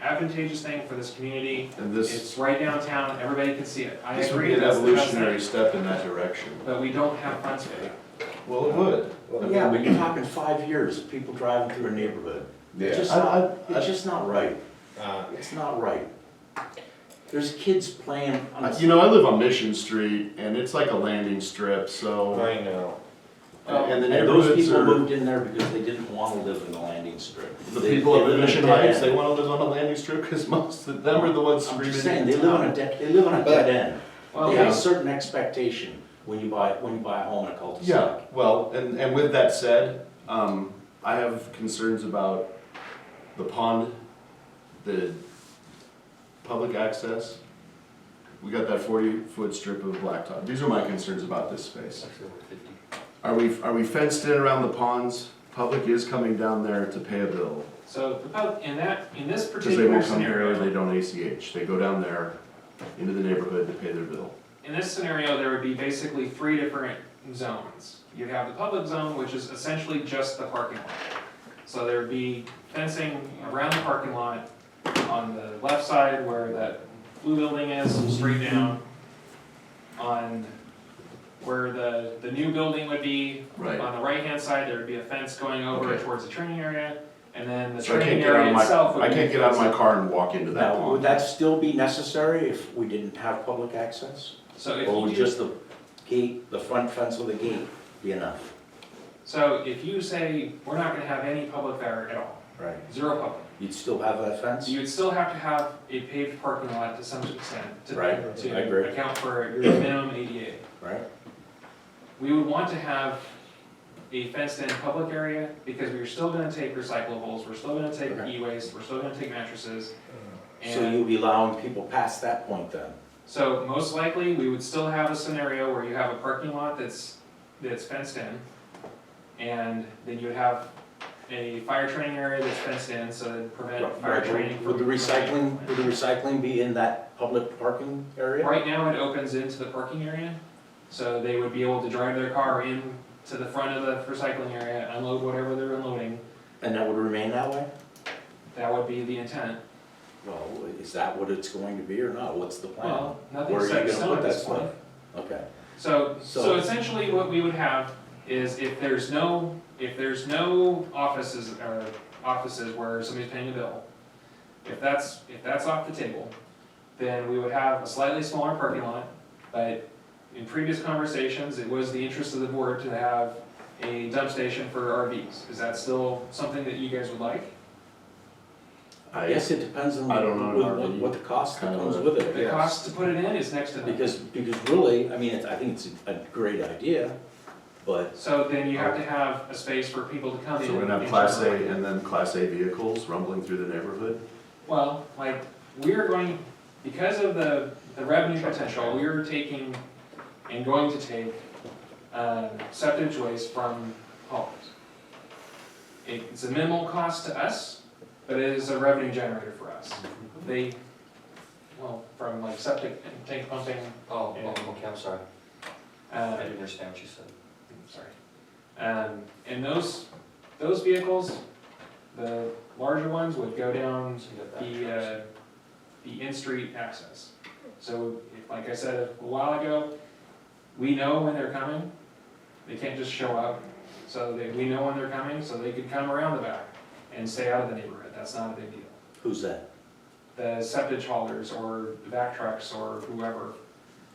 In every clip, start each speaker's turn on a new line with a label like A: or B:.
A: advantageous thing for this community.
B: And this,
A: It's right downtown, everybody can see it. I
B: this would be
A: agree,
B: an
A: that's the best thing,
B: evolutionary step in that direction.
A: but we don't have funds for that.
B: Well, it would.
C: Well, Yeah, but you're talking five years, of people driving through a neighborhood. It's just
B: I- I-
C: not, it's just not right.
B: Uh,
C: It's not right. There's kids playing on
B: I-
C: the.
B: You know, I live on Mission Street and it's like a landing strip, so,
D: I know.
B: and the
C: And those
B: neighborhoods
C: people
B: are,
C: moved in there because they didn't want to live in the landing strip.
B: the
C: They-
B: people
C: they
B: of
C: live in a
B: Mission
C: dead
B: Heights, they
C: end.
B: wanna live on a landing strip because most of them are the ones
C: I'm
B: screaming.
C: just saying, they live on a dead, they live on a
D: But-
C: dead end.
A: Well,
C: They have a
A: yeah.
C: certain expectation when you buy, when you buy a home in a cul-de-sac.
B: Yeah, well, and, and with that said, um, I have concerns about the pond, the public access. We got that forty-foot strip of blacktop. These are my concerns about this space. Are we, are we fenced in around the ponds? Public is coming down there to pay a bill.
A: So the pub- in that, in this
B: Because they
A: particular
B: won't come here or they
A: scenario,
B: don't ACH. They go down there into the neighborhood to pay their bill.
A: in this scenario, there would be basically three different zones. You'd have the public zone, which is essentially just the parking lot. So there'd be fencing around the parking lot on the left side where that blue building is, straight down. On where the, the new building would be,
B: Right.
A: On the right-hand side, there would be a fence going over
B: Okay.
A: towards the training area, and then the
B: So I can't
A: training
B: get out
A: area
B: of my,
A: itself would be.
B: I can't get out of my car and walk into that
C: Now, would
B: pond.
C: that still be necessary if we didn't have public access?
A: So
C: Or would
A: if you, do-
C: just the gate, the front fence of the gate be enough?
A: so if you say, we're not gonna have any public there at all,
C: Right.
A: zero public,
C: You'd still have that fence?
A: you would still have to have a paved parking lot to some extent to.
C: Right, I
A: To
C: agree.
A: account for your minimum ADA.
C: Right.
A: We would want to have a fenced-in public area, because we're still gonna take recyclables, we're still gonna take
C: Okay.
A: e-waste, we're still gonna take mattresses, and.
C: So you'd be allowing people past that point then?
A: So most likely, we would still have a scenario where you have a parking lot that's, that's fenced in. And then you would have a fire training area that's fenced in, so that prevent fire training
C: Right,
A: from.
C: Would the recycling, would the recycling be in that public parking area?
A: Right now, it opens into the parking area, so they would be able to drive their car in to the front of the recycling area, unload whatever they're unloading.
C: And that would remain that way?
A: That would be the intent.
C: Well, is that what it's going to be or not? What's the plan?
A: Well,
C: Where are
A: nothing's
C: you
A: set in
C: gonna
A: stone
C: put
A: at
C: that
A: this point.
C: stuff? Okay.
A: So, so
C: So-
A: essentially what we would have is if there's no, if there's no offices, or offices where somebody's paying a bill, if that's, if that's off the table, then we would have a slightly smaller parking lot, but in previous conversations, it was the interest of the board to have a dump station for RVs. Is that still something that you guys would like?
C: I
B: I-
C: guess it depends on
B: I don't know,
C: what-
B: Marty.
C: what, what the cost that
B: Kinda
C: comes
B: what-
C: with it, I
A: The
C: guess.
A: cost to put it in is next to nothing.
C: Because, because really, I mean, it's, I think it's a a great idea, but
A: So then you have to have a space for people to come in.
B: So we're gonna have
A: and
B: class
A: turn
B: A
A: around.
B: and then class A vehicles rumbling through the neighborhood?
A: Well, like, we're going, because of the, the revenue potential, we're taking and going to take, uh, septic waste from homes. It's a minimal cost to us, but it is a revenue generator for us. They, well, from like septic and tank pumping,
D: Oh, oh, okay, I'm sorry. I
A: uh,
D: didn't understand what you said.
A: sorry. Um, and those, those vehicles, the larger ones would go down
D: So you got that.
A: the, uh, the in-street access. So, if- like I said a while ago, we know when they're coming, they can't just show up. So they, we know when they're coming, so they could come around the back and stay out of the neighborhood, that's not a big deal.
C: who's that?
A: The septic haulers or the back trucks or whoever,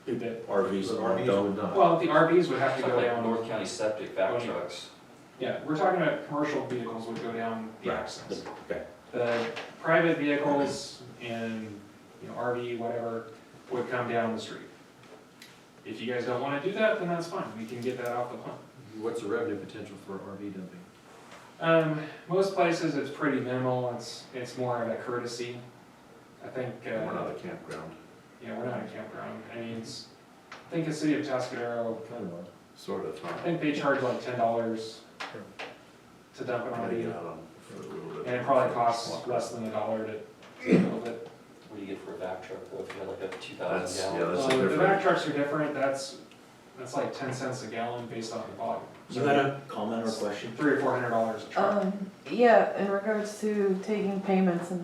A: that,
C: RVs aren't done.
A: well, the RVs would have to
D: Something
A: go
D: like
A: down.
D: North County septic back
A: Okay.
D: trucks.
A: Yeah, we're talking about commercial vehicles would go down the
C: Right.
A: access.
C: Okay.
A: The private vehicles and, you know, RV, whatever, would come down the street. If you guys don't wanna do that, then that's fine, we can get that off the plan.
E: What's the revenue potential for RV dumping?
A: Um, most places it's pretty minimal, it's, it's more of a courtesy. I think, uh,
B: We're not a campground,
A: yeah, we're not a campground, I mean, it's, I think the city of Tascadero,
E: Kind of.
B: sort of,
A: I
B: huh?
A: think they charge like ten dollars to dump an
B: Gotta get
A: RV,
B: out on for a little bit.
A: and it probably costs less than a dollar to, move it.
D: What do you get for a back truck, though, if you had like a two
B: That's,
D: thousand
B: yeah,
D: gallon?
B: that's
A: Uh,
B: a
A: The back
B: different.
A: trucks are different, that's, that's like ten cents a gallon based on the volume.
C: You had a comment or question?
A: Three or four hundred dollars a truck.
F: Um, yeah, in regards to taking payments and